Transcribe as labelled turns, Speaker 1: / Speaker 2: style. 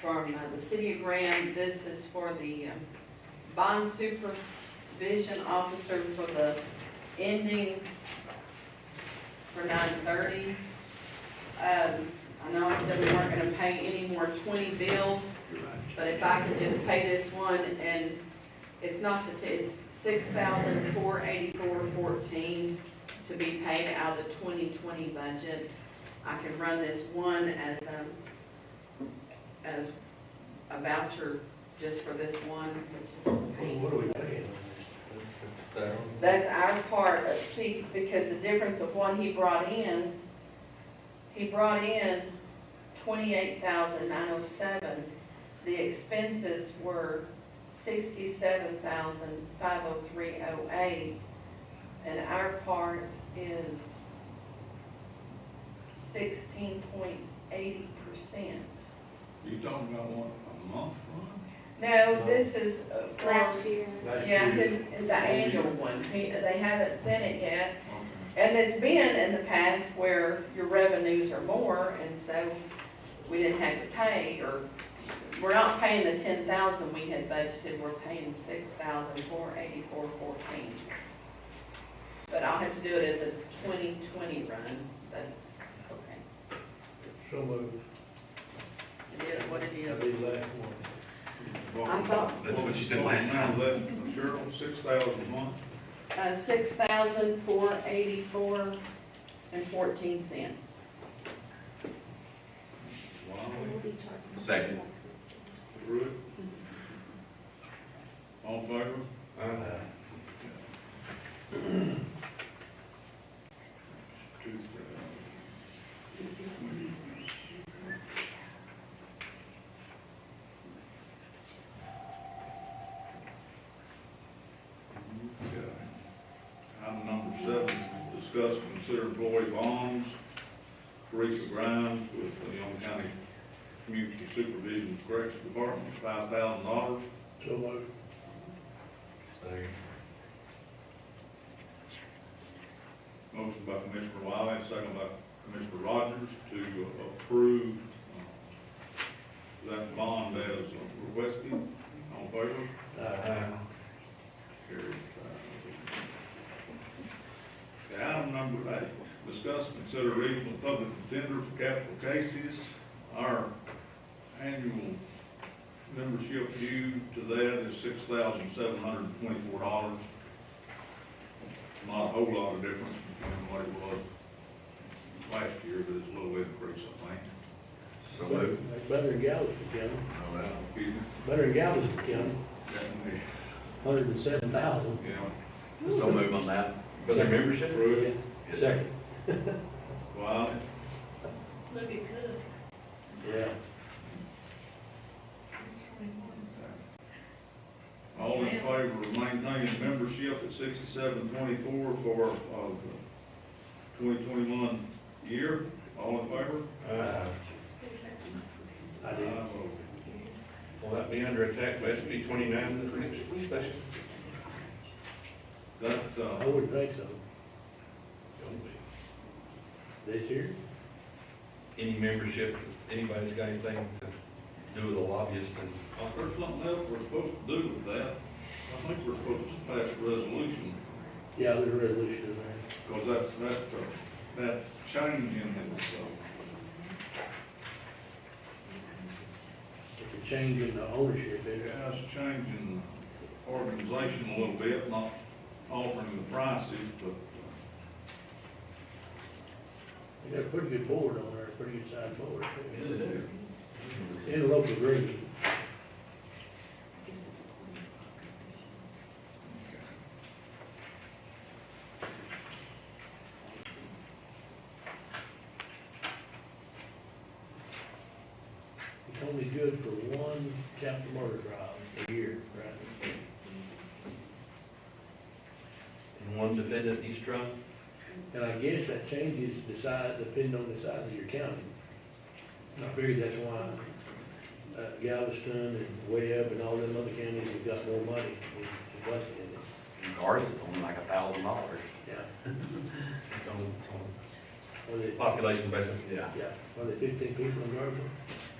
Speaker 1: from uh, the city of Graham. This is for the um, bond supervision officer for the ending for nine thirty. Um, I know I said we weren't gonna pay any more twenty bills,
Speaker 2: You're right.
Speaker 1: but if I can just pay this one and it's not the, t- it's six thousand four eighty-four fourteen to be paid out of the twenty twenty budget. I can run this one as a, as a voucher just for this one, which is a pain.
Speaker 3: What are we paying on this? That's six thousand?
Speaker 1: That's our part of, see, because the difference of what he brought in, he brought in twenty-eight thousand nine oh seven. The expenses were sixty-seven thousand five oh three oh eight. And our part is sixteen point eighty percent.
Speaker 2: You talking about what, a month run?
Speaker 1: No, this is uh, for-
Speaker 4: last year.
Speaker 3: Last
Speaker 1: yeah,
Speaker 3: year,
Speaker 1: his, the annual one. He, they haven't sent it yet.
Speaker 2: Okay.
Speaker 1: And it's been in the past where your revenues are more, and so we didn't have to pay, or we're not paying the ten thousand we had budgeted, we're paying six thousand four eighty-four fourteen. But I'll have to do it as a twenty twenty run, but it's okay.
Speaker 3: So moved.
Speaker 1: It is what it
Speaker 3: That'd
Speaker 1: is.
Speaker 3: be the last one.
Speaker 1: I thought-
Speaker 5: That's what you said last time.
Speaker 2: Left, Cheryl, six thousand a month,
Speaker 1: Uh, six thousand four eighty-four and fourteen cents.
Speaker 2: wow,
Speaker 4: We'll be charging.
Speaker 5: Second.
Speaker 2: through it. All in favor? Two thousand. Okay. Item number seven, discuss and consider employee bonds. Teresa Grimes with the Young County Community Supervision Corrections Department, five thousand dollars.
Speaker 3: So moved.
Speaker 2: Motion by Commissioner Wiley, second by Commissioner Rogers to approve uh, that bond as requested. All in favor?
Speaker 3: Aye.
Speaker 2: Carried five. Okay, Item number eight, discuss and consider regional public defender for capital cases. Our annual membership due to that is six thousand seven hundred and twenty-four dollars. Not a whole lot of difference between what it was last year, but it's a little increase, I think.
Speaker 5: So
Speaker 3: Better
Speaker 5: moved.
Speaker 3: better than Galveston County,
Speaker 5: No, that's-
Speaker 2: Excuse me,
Speaker 3: better than Galveston County,
Speaker 2: definitely,
Speaker 3: hundred and seven thousand.
Speaker 2: yeah.
Speaker 5: So move on that. For their membership?
Speaker 2: Approved.
Speaker 3: Second,
Speaker 2: Wiley,
Speaker 4: Look, it could.
Speaker 3: yeah.
Speaker 2: All in favor of maintaining membership at sixty-seven twenty-four for, uh, twenty twenty-one year? All in favor?
Speaker 6: Uh,
Speaker 3: I did.
Speaker 2: I vote
Speaker 6: Will that be under attack by SB twenty-nine this next session?
Speaker 2: That,
Speaker 3: I
Speaker 2: uh,
Speaker 3: wouldn't think so. This year?
Speaker 6: Any membership, anybody's got anything to do with a lobbyist and
Speaker 2: well, there's something else we're supposed to do with that. I think we're supposed to pass a resolution,
Speaker 3: Yeah, there's a resolution in there.
Speaker 2: because that's, that, uh, that change in it, so.
Speaker 3: It's a change in the ownership there.
Speaker 2: Yeah, it's changing the organization a little bit, not altering the prices, but uh,
Speaker 3: They got a pretty good board on there, a pretty good sized board. In local agreement. It's only good for one capital murder trial a year, right?
Speaker 6: and one defendant each trial?
Speaker 3: And I guess that changes the size, depending on the size of your county. And I figure that's why uh, Galveston and Webb and all them other counties have got more money than West in it.
Speaker 5: Ours is only like a thousand dollars.
Speaker 3: Yeah,
Speaker 6: On- on
Speaker 3: are they,
Speaker 6: Population basis?
Speaker 5: Yeah.
Speaker 3: yeah, are they fifteen people in Garfield?